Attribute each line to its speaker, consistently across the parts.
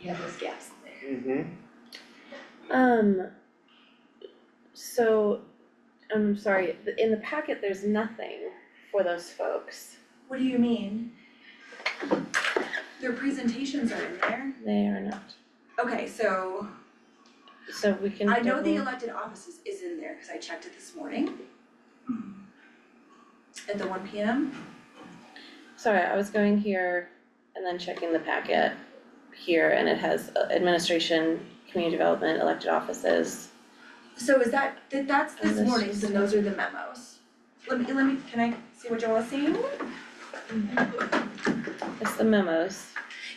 Speaker 1: yeah, there's gaps in there.
Speaker 2: Mm-hmm.
Speaker 3: Um, so, I'm sorry, th- in the packet, there's nothing for those folks.
Speaker 1: What do you mean? Their presentations are in there,
Speaker 3: They are not,
Speaker 1: okay, so
Speaker 3: so we can Mhm.
Speaker 1: I know the
Speaker 3: double-
Speaker 1: elected offices is in there, cause I checked it this morning. At the one P M,
Speaker 3: Sorry, I was going here and then checking the packet here, and it has uh, administration, community development, elected offices.
Speaker 1: so is that, that that's
Speaker 3: And
Speaker 1: this
Speaker 3: this
Speaker 1: morning,
Speaker 3: is-
Speaker 1: so those are the memos. Let me, let me, can I see what y'all are seeing?
Speaker 3: It's the memos.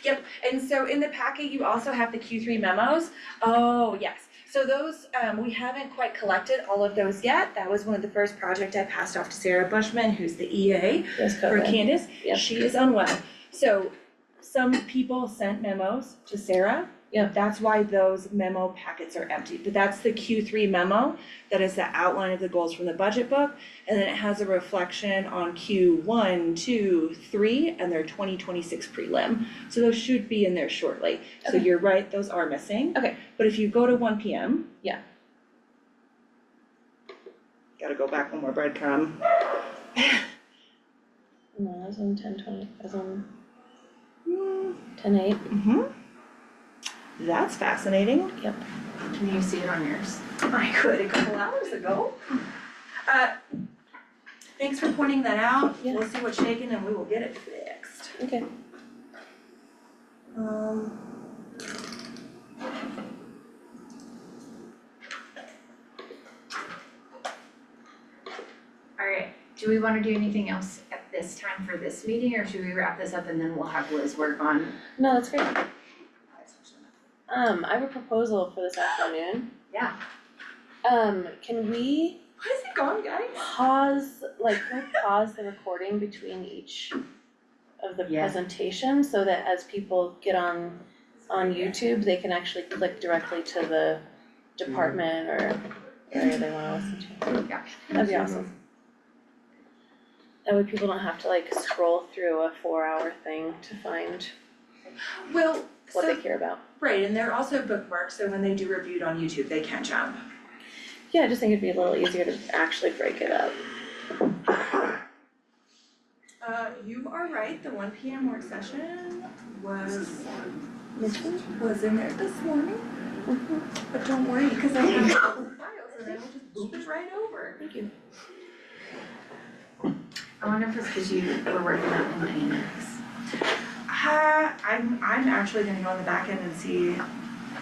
Speaker 1: Yep, and so in the packet, you also have the Q three memos. Oh, yes. So those, um, we haven't quite collected all of those yet. That was one of the first project I passed off to Sarah Bushman, who's the E EA
Speaker 3: Yes,
Speaker 1: for
Speaker 3: COVID.
Speaker 1: Candace.
Speaker 3: Yep.
Speaker 1: She is unwell. So some people sent memos to Sarah.
Speaker 3: Yep.
Speaker 1: That's why those memo packets are empty, but that's the Q three memo. That is the outline of the goals from the budget book. And then it has a reflection on Q one, two, three, and their twenty twenty-six prelim. So those should be in there shortly. So
Speaker 3: Okay.
Speaker 1: you're right, those are missing.
Speaker 3: Okay.
Speaker 1: But if you go to one P M.
Speaker 3: Yeah.
Speaker 1: Gotta go back one more breadcrumb.
Speaker 3: No, that was on ten twenty, that was on
Speaker 1: Hmm.
Speaker 3: ten eight.
Speaker 1: Mm-hmm. That's fascinating.
Speaker 3: Yep.
Speaker 1: Can you see it on yours? I could a couple hours ago. Uh, thanks for pointing that out.
Speaker 3: Yeah.
Speaker 1: We'll see what's shaking and we will get it fixed.
Speaker 3: Okay.
Speaker 1: Um.
Speaker 4: Alright, do we wanna do anything else at this time for this meeting, or should we wrap this up and then we'll have Liz work on?
Speaker 3: No, that's great. Um, I have a proposal for this afternoon.
Speaker 4: Yeah.
Speaker 3: Um, can we
Speaker 1: What is it gone, guys?
Speaker 3: pause, like, can we pause the recording between each of the
Speaker 4: Yeah.
Speaker 3: presentation so that as people get on on YouTube, they can actually click directly to the department or area they wanna listen to.
Speaker 4: Yeah.
Speaker 3: That'd be awesome. That way people don't have to like scroll through a four hour thing to find
Speaker 1: Well,
Speaker 3: what
Speaker 1: so,
Speaker 3: they care about.
Speaker 1: right, and they're also bookmarked, so when they do reviewed on YouTube, they can jump.
Speaker 3: Yeah, I just think it'd be a little easier to actually break it up.
Speaker 1: Uh, you are right, the one P M work session was was in there this morning.
Speaker 3: Mm-hmm.
Speaker 1: But don't worry, cause I have all the files and I will just boop it right over.
Speaker 3: Thank you.
Speaker 4: I wonder if it's cause you were working on an annex.
Speaker 1: Uh, I'm, I'm actually gonna go on the back end and see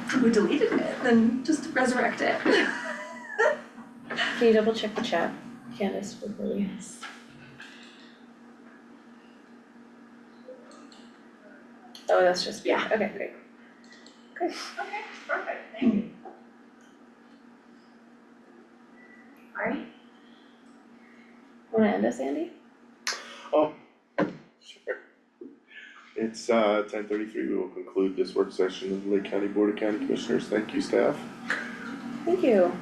Speaker 1: who deleted it, then just resurrect it.
Speaker 3: Can you double check the chat, Candace, before we? Oh, that's just, yeah, okay, great.
Speaker 1: Okay, perfect, thank you.
Speaker 4: Alright,
Speaker 3: Wanna end us, Andy?
Speaker 2: Sure. It's uh ten thirty-three, we will conclude this work session of the Lake County Board of County Commissioners, thank you staff.
Speaker 3: Thank you.